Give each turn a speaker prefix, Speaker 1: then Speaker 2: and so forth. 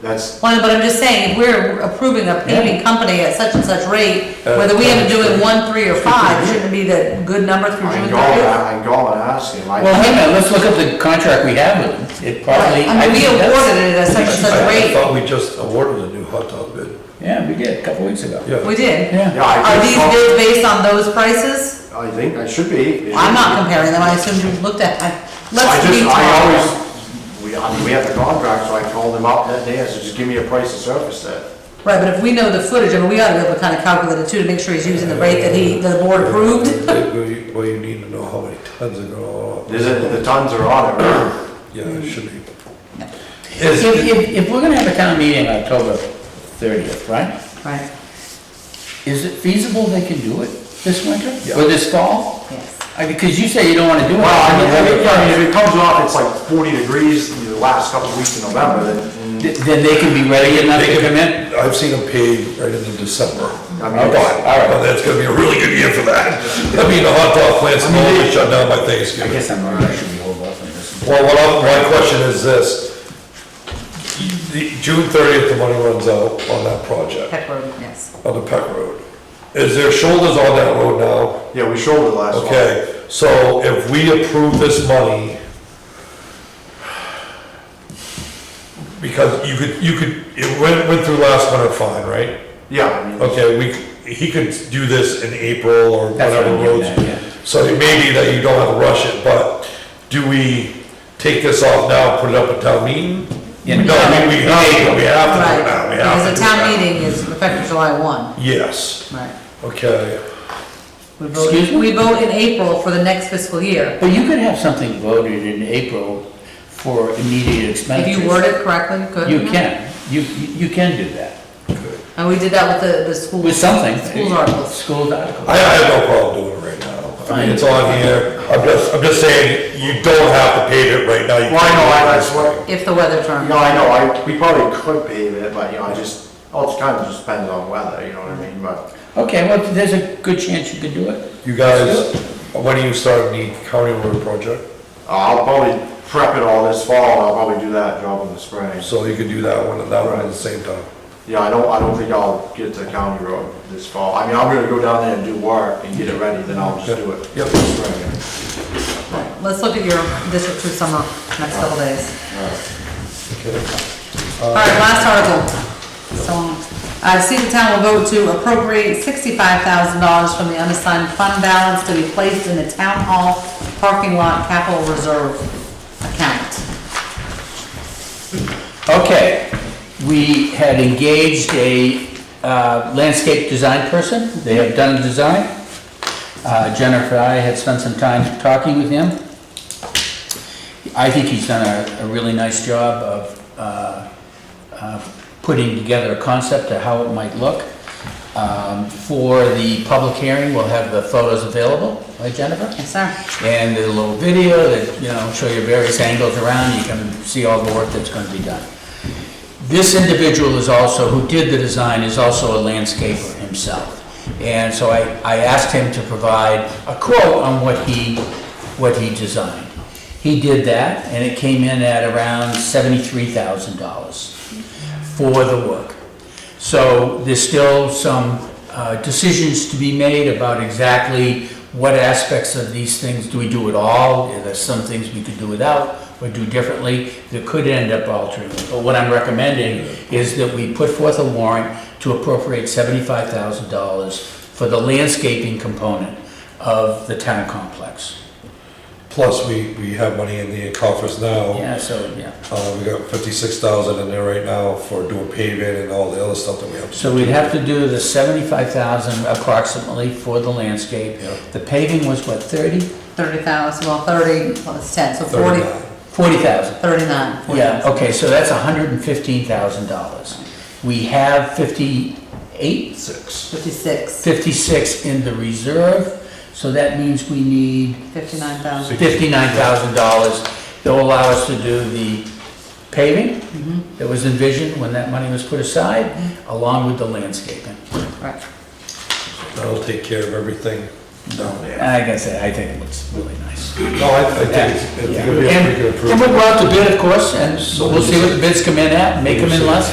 Speaker 1: That's,
Speaker 2: Well, but I'm just saying, if we're approving a paving company at such and such rate,
Speaker 3: Uh,
Speaker 2: whether we end up doing
Speaker 3: uh,
Speaker 2: one, three, or five, shouldn't it be the good number through
Speaker 1: I
Speaker 2: June
Speaker 1: can go,
Speaker 2: thirtieth?
Speaker 1: I can go and ask him,
Speaker 3: Well,
Speaker 1: I,
Speaker 3: hang on, let's look up the contract we have with them. It probably.
Speaker 2: I mean, we
Speaker 3: think that's-
Speaker 2: awarded it at such and such
Speaker 4: I
Speaker 2: rate,
Speaker 4: thought we just awarded a new hot dog bid,
Speaker 3: Yeah, we did, a couple weeks ago.
Speaker 4: yeah.
Speaker 2: we did.
Speaker 1: yeah,
Speaker 3: Yeah.
Speaker 2: Are
Speaker 1: I
Speaker 2: these
Speaker 1: think,
Speaker 2: bids based on those prices?
Speaker 1: so. I think I should be. It should
Speaker 2: I'm not
Speaker 1: be.
Speaker 2: comparing them, I assume you've looked at, I,
Speaker 1: I
Speaker 2: let's
Speaker 1: just, I
Speaker 2: be tomorrow.
Speaker 1: always, we, I mean, we have the contract, so I called him up that day, I said, just give me a price to surface that.
Speaker 2: Right, but if we know the footage, I mean, we ought to be able to kind of calculate it too, to make sure he's using the rate that he, the board approved.
Speaker 4: Well, you- well, you need to know how many tons are going on.
Speaker 1: There's, a- the tons are on it, right?
Speaker 4: Yeah, it should be.
Speaker 3: If,
Speaker 4: Is,
Speaker 3: if, if we're gonna have a town meeting on October thirtieth, right?
Speaker 2: Right,
Speaker 3: Is it feasible they can do it this winter or this fall?
Speaker 2: yes.
Speaker 3: I- Because you say you don't wanna do it.
Speaker 1: Well, I mean, I mean, I mean, if it comes off, it's like forty degrees the last couple of weeks in November, then,
Speaker 3: Th- Then they can be ready enough to come in?
Speaker 4: I've seen them paid right into December.
Speaker 1: I mean,
Speaker 4: But,
Speaker 1: it's-
Speaker 4: but that's gonna be a really good year for that. I mean, the hot dog plants will always shut down by Thanksgiving.
Speaker 3: guess I'm, I should be hold off on this.
Speaker 4: Well, what I'm, my question is this, The- June thirtieth, the money runs out on that project,
Speaker 2: Peck Road, yes.
Speaker 4: on the Peck Road. Is there shoulders on that road now?
Speaker 1: yeah, we shouldered last one.
Speaker 4: Okay, so if we approve this money, because you could, you could, it went, went through last winter fine, right?
Speaker 1: Yeah, I mean,
Speaker 4: Okay, we, c- he could do this in April or
Speaker 3: That's what
Speaker 4: whatever
Speaker 3: I'm getting
Speaker 4: roads.
Speaker 3: at, yeah.
Speaker 4: So it may be that you don't have to rush it, but do we take this off now, put it up at town meeting?
Speaker 3: Yeah.
Speaker 4: No, we, we have to, we have to do it now,
Speaker 2: Right,
Speaker 4: we
Speaker 2: because
Speaker 4: have to do
Speaker 2: the town
Speaker 4: that.
Speaker 2: meeting is effective July one,
Speaker 4: Yes,
Speaker 2: right.
Speaker 4: okay.
Speaker 2: We vote,
Speaker 3: Excuse me?
Speaker 2: we vote in April for the next fiscal year.
Speaker 3: But you could have something voted in April for immediate
Speaker 2: If
Speaker 3: expenditures.
Speaker 2: you word it correctly, you could.
Speaker 3: You can, you, you can do that,
Speaker 2: And we did that with the, the school.
Speaker 3: with something.
Speaker 2: School articles.
Speaker 3: School articles.
Speaker 4: I, I have no problem doing it right now. I mean, it's on here. I'm just, I'm just saying, you don't have to pay it right now. You
Speaker 1: Well, I
Speaker 4: can
Speaker 1: know,
Speaker 4: do it
Speaker 1: I-
Speaker 4: this
Speaker 1: that's what,
Speaker 2: If the weather
Speaker 1: you
Speaker 2: turns.
Speaker 1: know, I know, I, we probably could pave it, but, you know, I just, all it kind of just depends on weather, you know what I mean, but.
Speaker 3: Okay, well, there's a good chance you could do it.
Speaker 4: You guys, when do you start the county road project?
Speaker 1: Uh, I'll probably prep it all this fall, and I'll probably do that job in the spring.
Speaker 4: So you can do that one and that one at the same time.
Speaker 1: Yeah, I don't, I don't think I'll get to county road this fall. I mean, I'm gonna go down there and do work and get it ready, then I'll just do it.
Speaker 4: Yep.
Speaker 1: in the spring.
Speaker 2: Let's look at your district two summer, next couple days. All right, last article. So, I see the town will vote to appropriate sixty-five thousand dollars from the unassigned fund balance to be placed in the town hall parking lot capital reserve account.
Speaker 3: Okay, we had engaged a uh, landscape design person, they have done a design. Uh, Jennifer and I had spent some time talking with him. I think he's done a, a really nice job of uh, uh, putting together a concept of how it might look. Um, For the public hearing, we'll have the photos available, right Jennifer?
Speaker 2: Yes, sir.
Speaker 3: And there's a little video that, you know, show you various angles around, you can see all the work that's gonna be done. This individual is also, who did the design, is also a landscaper himself. And so I, I asked him to provide a quote on what he, what he designed. He did that, and it came in at around seventy-three thousand dollars for the work. So there's still some uh, decisions to be made about exactly what aspects of these things do we do at all? Are there some things we could do without or do differently that could end up altering? it. But what I'm recommending is that we put forth a warrant to appropriate seventy-five thousand dollars for the landscaping component of the town complex.
Speaker 4: Plus, we, we have money in the coffers now.
Speaker 3: Yeah, so, yeah.
Speaker 4: Uh, we got fifty-six thousand in there right now for doing paving and all the other stuff that we have. to-
Speaker 3: So we'd have to do the seventy-five thousand approximately for the landscape.
Speaker 4: Yeah.
Speaker 3: The paving was what, thirty?
Speaker 2: Thirty thousand, well, thirty plus ten, so forty,
Speaker 4: 39.
Speaker 3: Forty thousand.
Speaker 2: thirty-nine.
Speaker 3: Yeah, okay, so that's hundred and fifteen thousand dollars. We have fifty-eight,
Speaker 4: Six.
Speaker 2: Fifty-six,
Speaker 3: fifty-six in the reserve, so that means we need
Speaker 2: fifty-nine thousand.
Speaker 3: fifty-nine thousand dollars that will allow us to do the paving
Speaker 4: Mm-hmm.
Speaker 3: that was envisioned when that money was put aside, along with the landscaping.
Speaker 2: Right.
Speaker 4: That'll take care of everything down there.
Speaker 3: And like I said, I think it looks really nice.
Speaker 4: No, I, I think it's, it's gonna be a pretty good
Speaker 3: And
Speaker 4: improvement.
Speaker 3: and we'll go out to bid, of course, and we'll see what the bids come in at, make them in less,